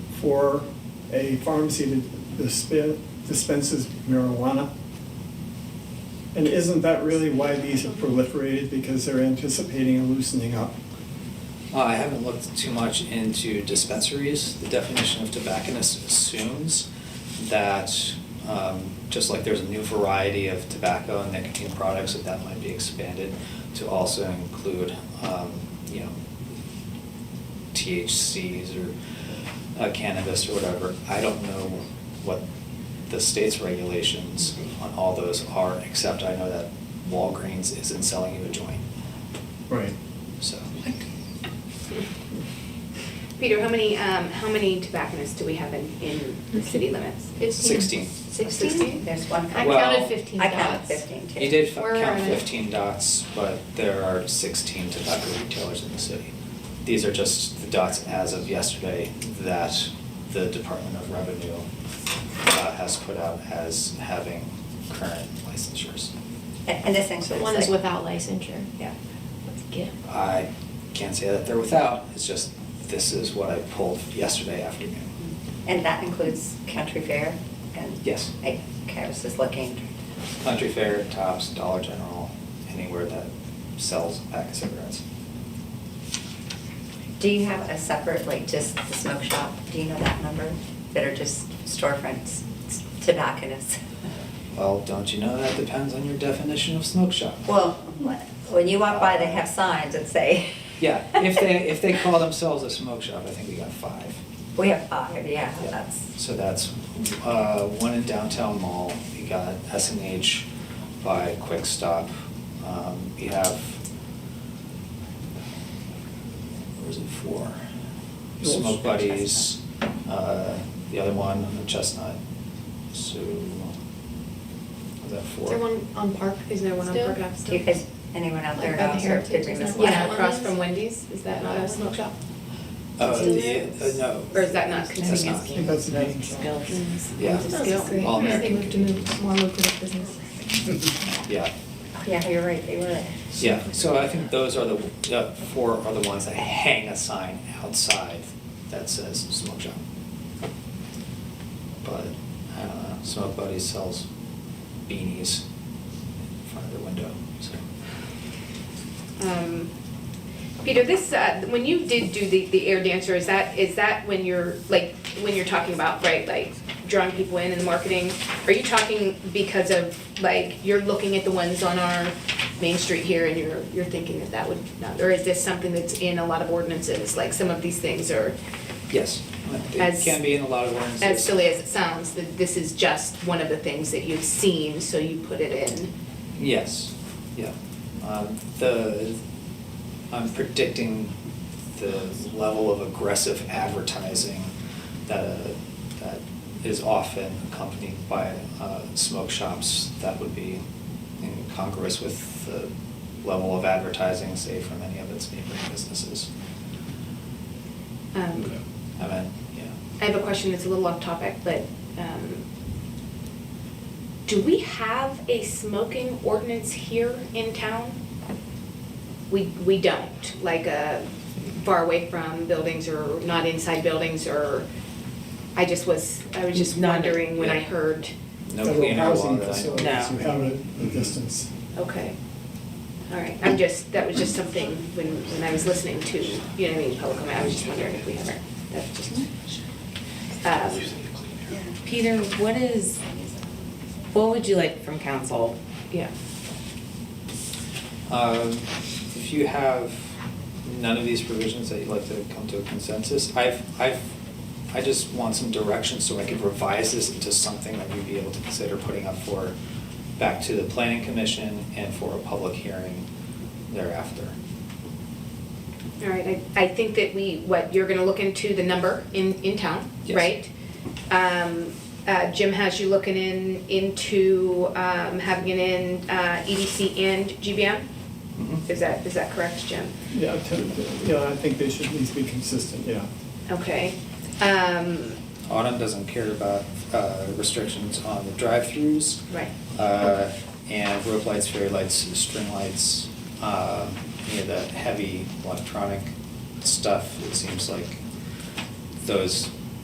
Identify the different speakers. Speaker 1: for a pharmacy to disp- dispenses marijuana? And isn't that really why these have proliferated, because they're anticipating a loosening up?
Speaker 2: Uh, I haven't looked too much into dispensaries. The definition of tobacconist assumes that, um, just like there's a new variety of tobacco and nicotine products, that that might be expanded to also include, um, you know, THCs or uh, cannabis or whatever. I don't know what the state's regulations on all those are, except I know that Walgreens isn't selling you a joint,
Speaker 1: Right.
Speaker 2: so.
Speaker 3: Peter, how many, um, how many tobacconists do we have in, in the city limits?
Speaker 2: Sixteen.
Speaker 3: Sixteen?
Speaker 4: There's one.
Speaker 2: I Well- counted
Speaker 5: 15
Speaker 4: I counted
Speaker 5: dots.
Speaker 4: fifteen too.
Speaker 2: You did f-
Speaker 5: We're
Speaker 2: count
Speaker 5: on it.
Speaker 2: fifteen dots, but there are sixteen tobacco retailers in the city. These are just the dots as of yesterday that the Department of Revenue uh, has put out as having current licensures.
Speaker 4: And and essentially. it's
Speaker 5: One is
Speaker 4: like-
Speaker 5: without licensure.
Speaker 4: Yeah.
Speaker 5: Yeah.
Speaker 2: I can't say that they're without, it's just, this is what I pulled yesterday afternoon.
Speaker 4: And that includes Country Fair and?
Speaker 2: Yes.
Speaker 4: I- Okay, I was just looking.
Speaker 2: Country Fair, Tops, Dollar General, anywhere that sells a pack of cigarettes.
Speaker 4: Do you have a separate, like just the smoke shop? Do you know that number? That are just storefronts, tobacconists?
Speaker 2: Well, don't you know that depends on your definition of smoke shop?
Speaker 4: Well, when you walk by, they have signs that say.
Speaker 2: Yeah, if they, if they call themselves a smoke shop, I think we got five.
Speaker 4: We have five, yeah, that's,
Speaker 2: So that's, uh, one in downtown mall, you got S and H by Quick Stop. Um, you have, where is it, four?
Speaker 1: Yours?
Speaker 2: Smoke Buddies, uh, the other one on the Chestnut, so, is that four?
Speaker 5: Is there one on Park? Is there one on
Speaker 6: Still?
Speaker 5: Park Ave
Speaker 4: do you
Speaker 5: still?
Speaker 4: guys, anyone out there uh,
Speaker 5: Like by the
Speaker 4: know? Sorry,
Speaker 5: heritage
Speaker 4: did we
Speaker 5: or
Speaker 4: miss
Speaker 5: something?
Speaker 4: one?
Speaker 5: Yeah.
Speaker 6: across from Wendy's, is that not a smoke shop?
Speaker 2: Uh,
Speaker 6: Still
Speaker 2: yeah,
Speaker 6: there?
Speaker 2: uh, no.
Speaker 6: Or is that not
Speaker 2: That's
Speaker 6: convenience?
Speaker 2: not.
Speaker 1: I think that's an eating shop.
Speaker 2: Yeah.
Speaker 6: That's great.
Speaker 2: All
Speaker 5: They
Speaker 2: American.
Speaker 5: moved to move, more lucrative business.
Speaker 2: Yeah.
Speaker 4: Yeah, you're right, they were.
Speaker 2: Yeah, so I think those are the, the four are the ones that hang a sign outside that says smoke shop. But, I don't know, Smoke Buddy sells beanies in front of their window, so.
Speaker 3: Um, Peter, this, uh, when you did do the, the air dancer, is that, is that when you're, like, when you're talking about, right, like, drawing people in and the marketing? Are you talking because of, like, you're looking at the ones on our main street here and you're, you're thinking that that would not, or is this something that's in a lot of ordinances? Like, some of these things are,
Speaker 2: Yes, it
Speaker 3: As-
Speaker 2: can be in a lot of ordinances.
Speaker 3: as silly as it sounds, that this is just one of the things that you've seen, so you put it in.
Speaker 2: Yes, yeah. Um, The, I'm predicting the level of aggressive advertising that, uh, that is often accompanied by uh, smoke shops that would be in congruous with the level of advertising, say, from any of its neighboring businesses.
Speaker 3: Um,
Speaker 2: I mean, yeah.
Speaker 3: I have a question that's a little off topic, but um, do we have a smoking ordinance here in town? We, we don't, like uh, far away from buildings or not inside buildings or, I just was, I was just
Speaker 7: None.
Speaker 3: wondering when I heard,
Speaker 2: No
Speaker 1: Federal
Speaker 2: clean air law
Speaker 1: housing
Speaker 2: that I-
Speaker 1: facilities,
Speaker 7: No.
Speaker 1: You have it at a distance.
Speaker 3: okay. All right, I'm just, that was just something when, when I was listening to, you know what I mean, public comment, I was just wondering if we ever, that's just. um,
Speaker 7: Peter, what is, what would you like from council?
Speaker 3: Yeah.
Speaker 2: Um, If you have none of these provisions that you'd like to come to a consensus, I've, I've, I just want some direction so I could revise this into something that we'd be able to consider putting up for, back to the planning commission and for a public hearing thereafter.
Speaker 3: All right, I, I think that we, what, you're gonna look into the number in, in town,
Speaker 2: Yes.
Speaker 3: right? Um, uh, Jim has you looking in, into, um, having it in, uh, EDC and GBM?
Speaker 2: Mm-hmm.
Speaker 3: Is that, is that correct, Jim?
Speaker 1: Yeah, to- yeah, I think they should at least be consistent, yeah.
Speaker 3: Okay, um,
Speaker 2: Autumn doesn't care about uh, restrictions on the drive-throughs.
Speaker 3: right,
Speaker 2: uh, and rope lights, fairy lights, string lights, uh, you know, that heavy electronic stuff, it seems like those